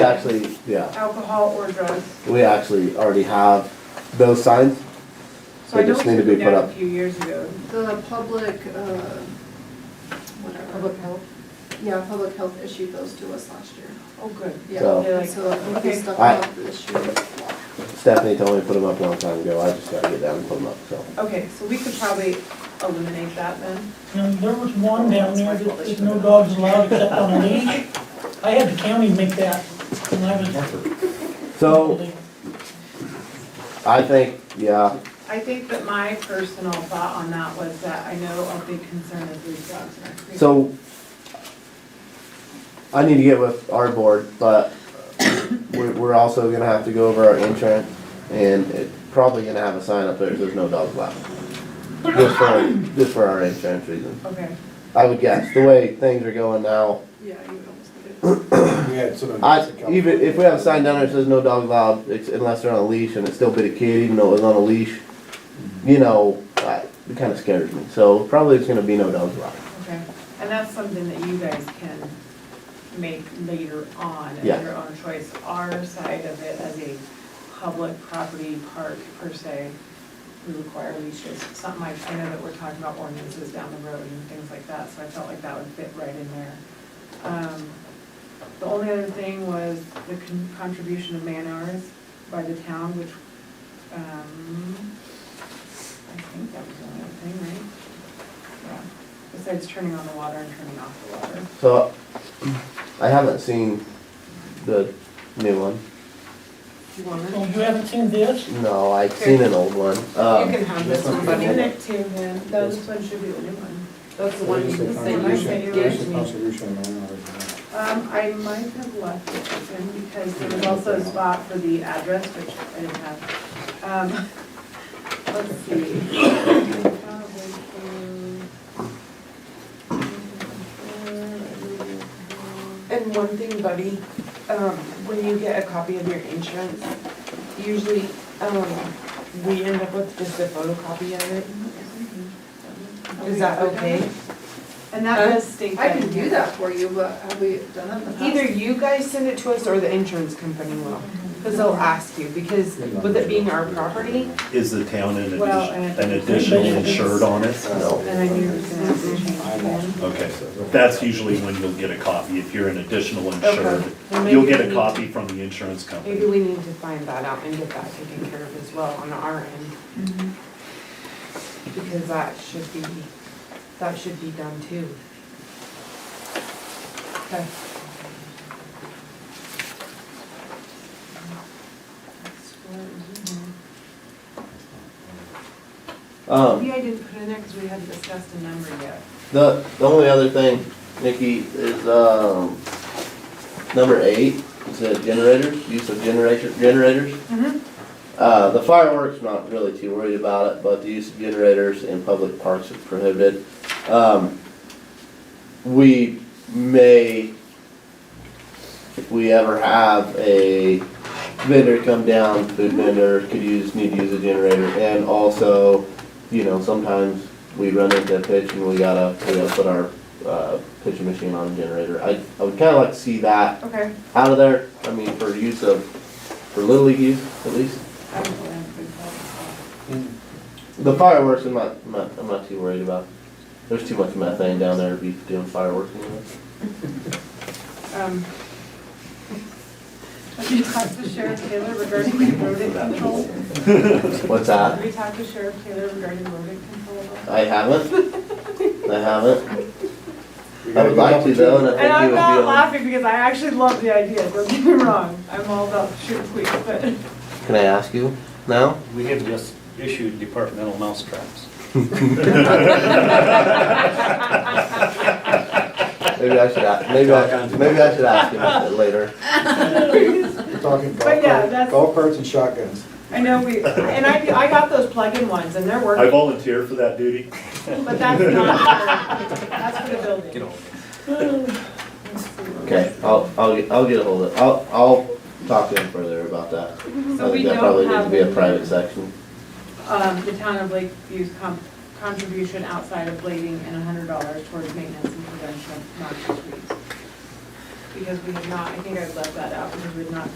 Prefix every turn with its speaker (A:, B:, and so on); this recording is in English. A: Actually, yeah,
B: alcohol or drugs.
A: we actually already have those signs.
B: So I
A: They
B: know
A: just
B: we
A: need to
B: took it
A: be put
B: down a
A: up.
B: few years ago.
C: The public, uh, whatever.
D: Public health?
C: Yeah, public health issued those to us last year.
B: Oh, good.
A: So-
C: Yeah, so we
B: Okay.
C: stuck
A: I-
C: up this year.
A: Stephanie told me to put them up a long time ago. I just gotta get down and put them up, so.
B: Okay, so we could probably eliminate that then.
E: And there was one down there that said no dogs allowed except on a leash. I had the county make that when I was.
A: So I think, yeah,
B: I think that my personal thought on that was that I know a big concern is these dogs in our creek.
A: so I need to get with our board, but we're, we're also gonna have to go over our insurance and it probably gonna have a sign up there, that says no dogs allowed. Just for, just for our insurance reasons.
B: Okay,
A: I would guess, the way things are going now,
C: Yeah, you would almost get it.
F: We had some.
A: I, even if we have a sign down there that says no dog allowed, it's- unless they're on a leash and it's still bit a kid, even though it was on a leash, you know, I, it kinda scares me, so probably it's gonna be no dogs allowed.
B: okay. And that's something that you guys can make later on at
A: Yeah.
B: your own choice. Our side of it as a public property park per se, we require leashes. Something like, I know that we're talking about ordinances down the road and things like that, so I felt like that would fit right in there. Um, The only other thing was the con- contribution of man hours by the town, which, um, I think that was the only other thing, right? Yeah, besides turning on the water and turning off the water.
A: So, I haven't seen the new one,
D: You want it?
E: Oh, you haven't seen this?
A: no, I've seen an old one,
D: You
A: um,
D: can have this one,
F: Give
D: buddy.
F: it.
B: to him,
F: Those
B: one should be the new one.
D: That's the one you can say.
B: What is the
D: you
B: contribution?
D: can
B: Give me.
F: Contribution.
B: Um, I might have left it open because there was also a spot for the address, which I didn't have. Um, let's see.
D: And one thing, buddy, um, when you get a copy of your insurance, usually, um, we end up with just a photocopy of it. Is that okay?
B: And that does state
C: I
B: that.
C: can do that for you, but have we done that in the past?
D: Either you guys send it to us or the insurance company will, because they'll ask you, because
F: uh,
D: with it being our property,
G: Is the town an addi-
B: Well, and-
G: an additional insured on it?
A: no.
B: And I knew it was gonna have to change then.
G: Okay, that's usually when you'll get a copy, if you're an additional insured.
D: Okay. Well, maybe
G: You'll get
D: we
G: a
D: need
G: copy from the insurance
D: maybe
G: company.
D: we need to find that out and get that taken care of as well on our end. Because that should be, that should be done too. Okay.
A: Um,
B: Maybe I didn't put it in there because we hadn't discussed a number yet.
A: the, the only other thing, Nikki, is, um, number eight, it said generators, use of generation, generators. Uh, the fireworks, not really too worried about it, but the use of generators in public parks is prohibited. Um, we may, if we ever have a vendor come down, food vendor could use, need to use a generator, and also, you know, sometimes we run into a pitch and we gotta, we gotta put our, uh, pitching machine on a generator. I, I would kinda like to see that
B: Okay.
A: out of there, I mean, for use of, for Little League use, at least.
B: I don't know what I'm gonna call
F: Mm.
A: The fireworks, I'm not, I'm not, I'm not too worried about. There's too much methane down there to be doing fireworks anyway.
B: it. Um, Have you talked to Sheriff Taylor regarding the rodent control?
A: What's that? Uh,
B: Have you talked to Sheriff Taylor regarding rodent control?
A: I haven't, I haven't. I would like to though, and I
B: And
A: think it would
B: I'm
A: be
B: not
A: on.
B: laughing because I actually love the idea, don't get me wrong, I'm all about shoot quick, but
A: Can I ask you now?
H: We have just issued departmental mousetraps.
A: Maybe I should ask, maybe I, maybe I should ask him later.
F: We're talking golf
B: But yeah,
F: cart,
B: that's-
F: golf carts and shotguns.
B: I know we, and I, I got those plug-in ones and they're
G: I
B: working,
G: volunteer for that duty.
B: but that's not, for- that's for the building.
A: Okay, I'll, I'll, get- I'll get ahold of, I'll, I'll talk to him further about that. I
B: So we
A: think that
B: don't
A: Oh, probably needs to
B: have
A: be a
B: any-
A: private section.
B: um, the town of Lakeview's com- contribution outside of blading and hundred dollars towards maintenance and prevention of noxious weeds. because we had not, I think I left that out, because we had not